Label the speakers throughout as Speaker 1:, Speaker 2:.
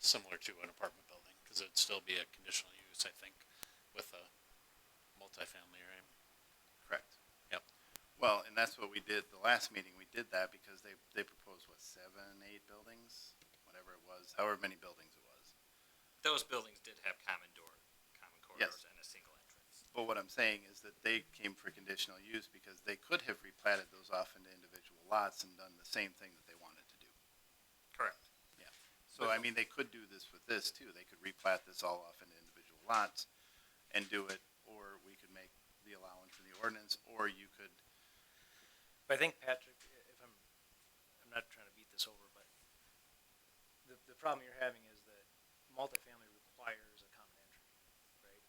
Speaker 1: similar to an apartment building, because it'd still be a conditional use, I think, with a multifamily, right?
Speaker 2: Correct.
Speaker 1: Yep.
Speaker 2: Well, and that's what we did, the last meeting, we did that because they, they proposed, what, seven, eight buildings? Whatever it was, however many buildings it was.
Speaker 3: Those buildings did have common door, common corridors and a single entrance.
Speaker 2: But what I'm saying is that they came for conditional use because they could have replatted those off into individual lots and done the same thing that they wanted to do.
Speaker 3: Correct.
Speaker 2: So, I mean, they could do this with this too. They could replat this all off into individual lots and do it, or we could make the allowance in the ordinance, or you could,
Speaker 4: But I think Patrick, if I'm, I'm not trying to beat this over, but the, the problem you're having is that multifamily requires a common entry, right?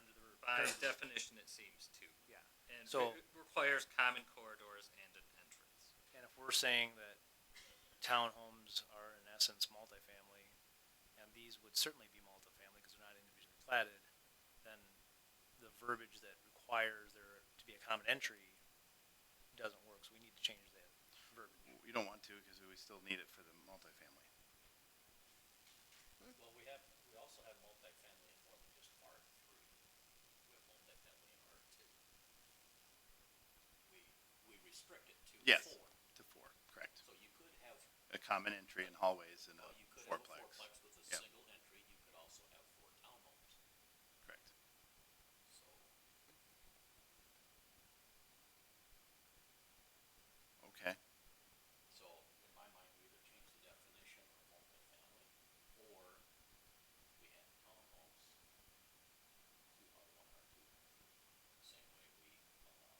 Speaker 4: Under the.
Speaker 3: By definition, it seems to.
Speaker 4: Yeah.
Speaker 3: And
Speaker 4: So-
Speaker 3: it requires common corridors and an entrance.
Speaker 4: And if we're saying that townhomes are in essence multifamily, and these would certainly be multifamily because they're not individually platted, then the verbiage that requires there to be a common entry doesn't work, so we need to change that verbiage.
Speaker 2: you don't want to because we still need it for the multifamily.
Speaker 5: Well, we have, we also have multifamily in more than just R three. We have multifamily in R two. We, we restrict it to
Speaker 2: Yes.
Speaker 5: four.
Speaker 2: To four, correct.
Speaker 5: So you could have,
Speaker 2: A common entry and hallways and
Speaker 5: well, you
Speaker 2: a
Speaker 5: could have a
Speaker 2: fourplex.
Speaker 5: fourplex with a
Speaker 2: Yeah.
Speaker 5: single entry. You could also have four townhomes,
Speaker 2: Correct.
Speaker 5: so.
Speaker 2: Okay.
Speaker 5: So in my mind, we either change the definition of multifamily or we add townhomes to R one, R two. Same way we allow.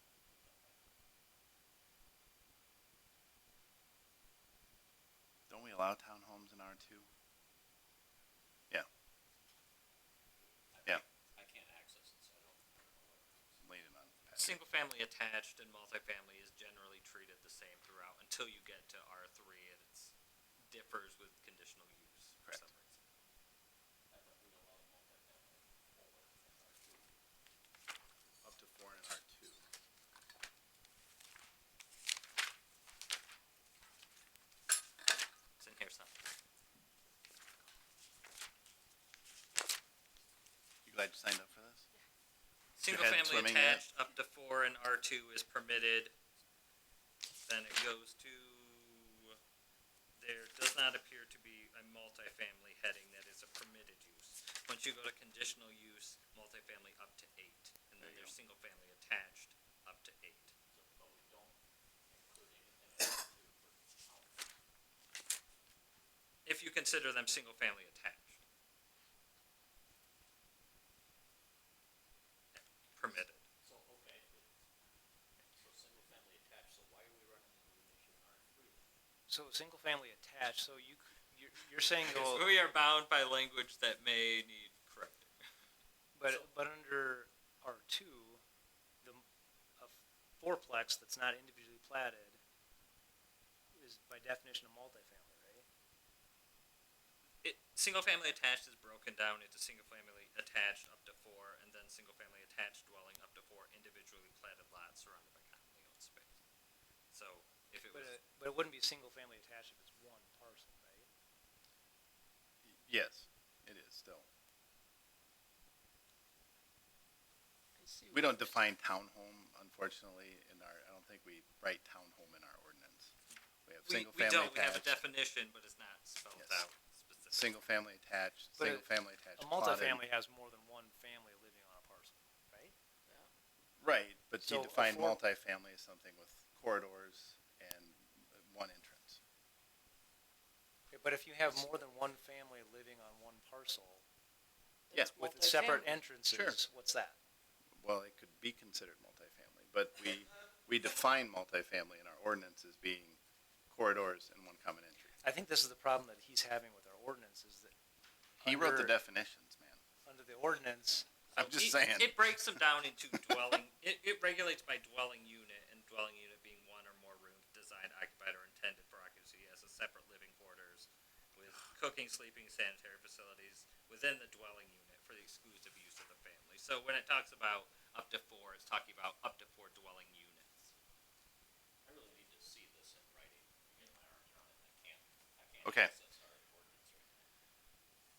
Speaker 2: Don't we allow townhomes in R two? Yeah,
Speaker 5: I-
Speaker 2: Yeah.
Speaker 5: I can't access it, so I don't. I don't know what it is.
Speaker 2: leaning on Patrick.
Speaker 3: Single-family attached and multifamily is generally treated the same throughout until you get to R three and it's differs with conditional use for
Speaker 2: Correct.
Speaker 3: some reason.
Speaker 5: I thought we allowed multifamily or R two.
Speaker 2: Up to four in R two.
Speaker 3: It's in here somewhere.
Speaker 2: You glad you signed up for this? Your head
Speaker 3: Single-family
Speaker 2: swimming yet?
Speaker 3: attached up to four and R two is permitted. Then it goes to, there does not appear to be a multifamily heading that is a permitted use. Once you go to conditional use, multifamily up to eight, and then
Speaker 2: There you
Speaker 3: there's
Speaker 2: go.
Speaker 3: single-family attached up to eight.
Speaker 5: So, but we don't include anything in R two for townhomes.
Speaker 3: If you consider them single-family attached. Permitted.
Speaker 5: So, okay. So single-family attached, so why are we recommending elimination in R three?
Speaker 4: So single-family attached, so you, c- you're, you're saying
Speaker 3: Because
Speaker 4: though,
Speaker 3: we are bound by language that may need correcting.
Speaker 4: but, but under R two, the, a fourplex that's not individually platted is by definition a multifamily, right?
Speaker 3: It, single-family attached is broken down into single-family attached up to four, and then single-family attached dwelling up to four individually platted lots surrounded by commonly owned space. So if it
Speaker 4: But,
Speaker 3: was,
Speaker 2: uh,
Speaker 4: it- but it wouldn't be single-family attached if it's one parcel, right?
Speaker 2: Yes, it is still. We don't define townhome, unfortunately, in our, I don't think we write townhome in our ordinance. We have
Speaker 3: we,
Speaker 2: single
Speaker 3: we
Speaker 2: family
Speaker 3: don't, we have a
Speaker 2: attached,
Speaker 3: definition, but it's not spelled
Speaker 2: Yes.
Speaker 3: out specifically.
Speaker 2: single family attached,
Speaker 4: But a-
Speaker 2: single family attached.
Speaker 4: A
Speaker 2: plotted.
Speaker 4: multifamily has more than one family living on a parcel, right?
Speaker 2: Right, but you
Speaker 4: So a
Speaker 2: define
Speaker 4: four-
Speaker 2: multifamily as something with corridors and one entrance.
Speaker 4: Okay, But if you have more than one family living on one parcel
Speaker 2: Yeah,
Speaker 6: That's
Speaker 4: with separate
Speaker 6: multifamily.
Speaker 4: entrances, what's that?
Speaker 2: Well, it could be considered multifamily, but we, we define multifamily in our ordinance as being corridors and one common entry.
Speaker 4: I think this is the problem that he's having with our ordinance is that
Speaker 2: He wrote the
Speaker 4: Under-
Speaker 2: definitions, man.
Speaker 4: under the ordinance,
Speaker 2: I'm just
Speaker 3: it,
Speaker 2: saying.
Speaker 3: It breaks them down into dwelling. It, it regulates by dwelling unit, and dwelling unit being one or more rooms designed, occupied, or intended for occupancy as a separate living quarters with cooking, sleeping, sanitary facilities within the dwelling unit for the exclusive use of the family. So when it talks about up to four, it's talking about up to four dwelling units.
Speaker 5: I really need to see this in writing, to get my arms around it, I can't, I can't.
Speaker 2: Okay.
Speaker 5: access